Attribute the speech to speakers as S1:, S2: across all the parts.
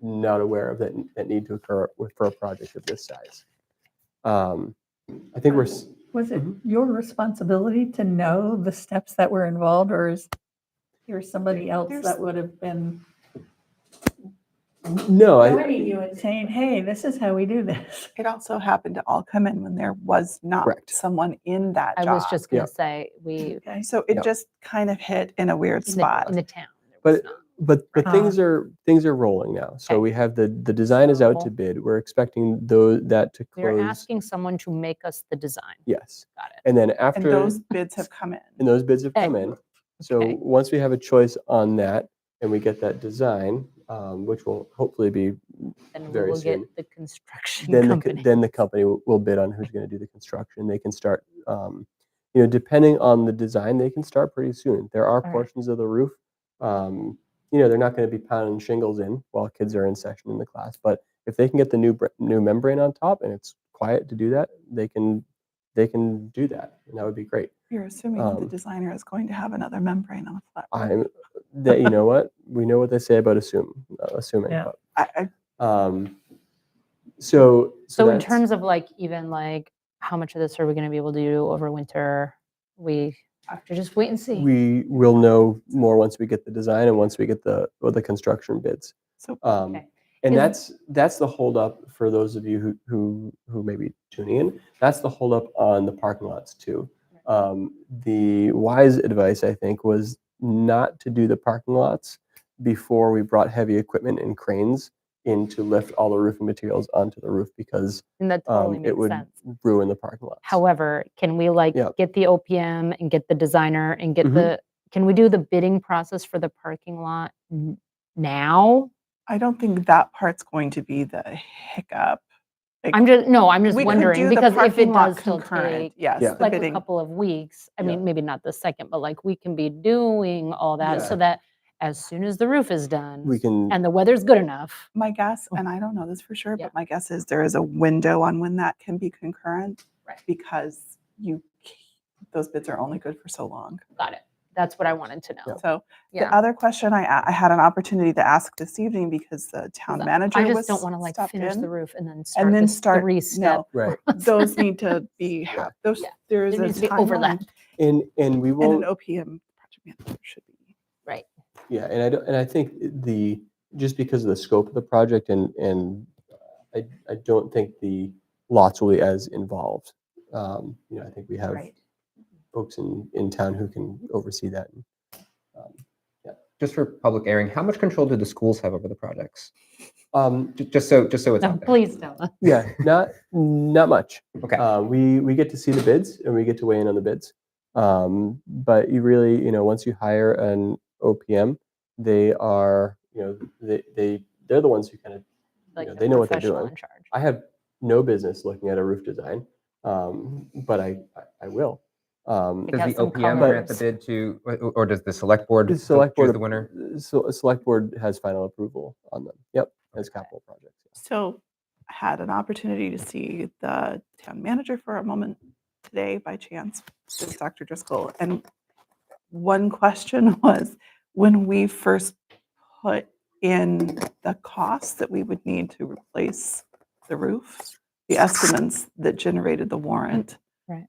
S1: not aware of that, that need to occur with, for a project of this size. Um, I think we're, s-
S2: Was it
S1: Mhm.
S2: your responsibility to know the steps that were involved, or is there somebody else
S3: There's-
S2: that would have been
S1: no, I,
S2: guiding you and saying, hey, this is how we do this?
S3: It also happened to all come in when there was not
S1: Correct.
S3: someone in that
S4: I
S3: job.
S4: was just going
S1: Yeah.
S4: to say, we,
S2: Okay.
S3: so it
S1: Yep.
S3: just kind of hit in a weird
S4: in the,
S3: spot.
S4: in the town. there
S1: But
S4: was
S1: it-
S4: not.
S1: but, but
S2: Ah.
S1: things are, things are rolling now. So
S4: Okay.
S1: we have the, the design is out to
S4: Cool.
S1: bid. We're expecting those, that to
S4: We were
S1: close.
S4: asking someone to make us the design.
S1: Yes.
S4: Got it.
S1: And then
S3: and
S1: after,
S3: those bids have come in.
S1: and those bids have come
S4: Okay.
S1: in. So
S4: Okay.
S1: once we have a choice on that and we get that design, um, which will hopefully be
S4: Then
S1: Very
S4: we'll
S1: soon.
S4: get the construction
S1: then the, co-
S4: company.
S1: then the company will, will bid on who's going to do the construction. They can start, um, you know, depending on the design, they can start pretty soon. There are
S4: right.
S1: portions of the roof, um, you know, they're not going to be pounding shingles in while kids are in session in the class. But if they can get the new br- new membrane on top and it's quiet to do that, they can they can do that, and that would be great.
S3: You're assuming the
S1: Um,
S3: designer is going to have another membrane on the flat. roof.
S1: I'm that you know what we know what they say about assume uh, assuming.
S2: Yeah.
S3: I, I,
S1: but, um, so
S4: So in
S1: that's-
S4: terms of like, even like, how much of this are we going to be able to do over winter? We have to just wait and see.
S1: we will know more once we get the design and once we get the or the construction bids.
S3: so
S1: Um,
S4: Okay.
S1: And
S4: Is-
S1: that's that's the holdup for those of you who who who may be tuning in. That's the holdup on the parking lots too. Um, the wise advice I think was not to do the parking lots before we brought heavy equipment and cranes in to lift all the roofing materials onto the roof because
S4: And that
S1: um,
S4: totally
S1: it
S4: makes
S1: would
S4: sense.
S1: ruin the parking lots.
S4: However, can we like
S1: Yeah.
S4: get the OPM and get the designer and get
S1: Mhm.
S4: the, can we do the bidding process for the parking lot n- now?
S3: I don't think that part's going to be the hiccup. Like,
S4: I'm just, no, I'm just
S3: we could
S4: wondering
S3: do the
S4: because if it
S3: parking lot
S4: does still
S3: concurrent,
S4: take
S3: yes,
S1: Yeah.
S3: the
S4: like a
S3: bidding.
S4: couple of weeks, I
S1: Yeah.
S4: mean, maybe not the second, but like we can be doing all that so that as soon as the roof is done
S1: we can
S4: and the weather's good enough,
S3: My guess, and I don't know this for sure,
S4: Oh. Yeah.
S3: but my guess is there is a window on when that can be concurrent
S4: Right.
S3: because you c- those bids are only good for so long.
S4: got it. That's what I wanted to know.
S3: So the
S4: Yeah.
S3: other question I, a- I had an opportunity to ask this evening because the town
S4: So
S3: uh, manager
S4: I
S3: was
S4: just don't want to like
S3: stopped
S4: finish
S3: in,
S4: the roof and then start
S3: and then
S4: this
S3: start
S4: three
S3: no
S4: step.
S1: right
S3: those need to be hap- those
S4: Yeah.
S3: there is
S4: There
S3: a
S4: needs to be
S3: timeline,
S4: overlap,
S1: and and we
S3: and
S1: will
S3: an OPM project manager should be
S4: right?
S1: Yeah, and I don't, and I think the, just because of the scope of the project and, and uh, I, I don't think the lots will be as involved. Um, You know, I think we have
S4: Right.
S1: folks in, in town who can oversee that.
S5: just for public airing, how much control do the schools have over the projects?
S1: Um,
S5: Ju- Just so, just so it's
S4: No,
S5: out there.
S4: please don't.
S1: Yeah, not, not much.
S5: Okay.
S1: Uh, we we get to see the bids and we get to weigh in on the bids. Um, but you really, you know, once you hire an OPM, they are, you know, they they they're the ones who kind of.
S4: Like
S1: Yeah,
S4: the
S1: they know what they're
S4: professional
S1: doing.
S4: in charge.
S1: I have no business looking at a roof design, um, but I I- I will. Um,
S4: It
S5: Does
S4: got
S5: the
S4: some
S5: OPM
S1: colors.
S5: grant the bid to, or- or does the select board
S1: The
S5: s-
S1: select board
S5: choose the
S1: ap-
S5: winner?
S1: So a select board has final approval on them. Yep, as capital projects.
S3: So I had an opportunity to see the town manager for a moment today by chance, with Dr. Driscoll. And one question was when we first put in the cost that we would need to replace the roof, the estimates that generated the warrant.
S4: Right.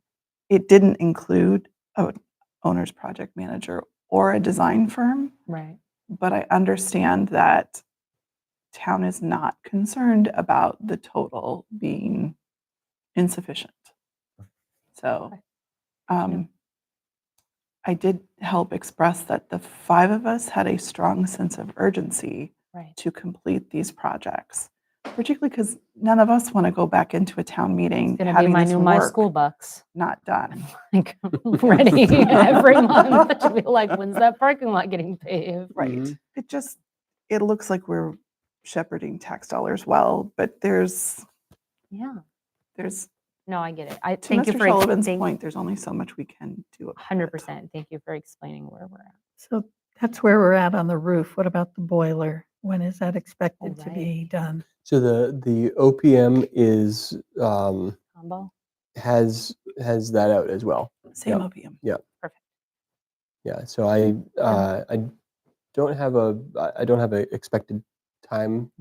S3: It didn't include an owner's project manager or a design firm
S4: Right.
S3: but I understand that town is not concerned about the total being insufficient. So,
S4: Okay.
S3: um, I did help express that the five of us had a strong sense of urgency
S4: Right.
S3: to complete these projects, particularly because none of us want to go back into a town meeting
S4: It's gonna be
S3: having
S4: my
S3: this
S4: new my
S3: work
S4: school bucks.
S3: not done.
S4: like ready every month to be like, when's that parking lot getting paved?
S3: Right.
S1: Mhm.
S3: It just it looks like we're shepherding tax dollars well, but there's
S4: Yeah.
S3: there's
S4: No, I get it. I
S3: to
S4: thank
S3: Mr.
S4: you for
S3: Sullivan's
S4: explaining.
S3: point, there's only so much we can do. about it.
S4: Hundred percent. Thank you for explaining where we're at.
S2: So that's where we're at on the roof. What about the boiler? When is that expected to
S4: right.
S2: be done?
S1: So the the OPM is um,
S4: Combo.
S1: has has that out as well.
S3: Same
S1: Yeah.
S3: opium.
S1: Yeah. So I uh, I don't have a I- I don't have a expected time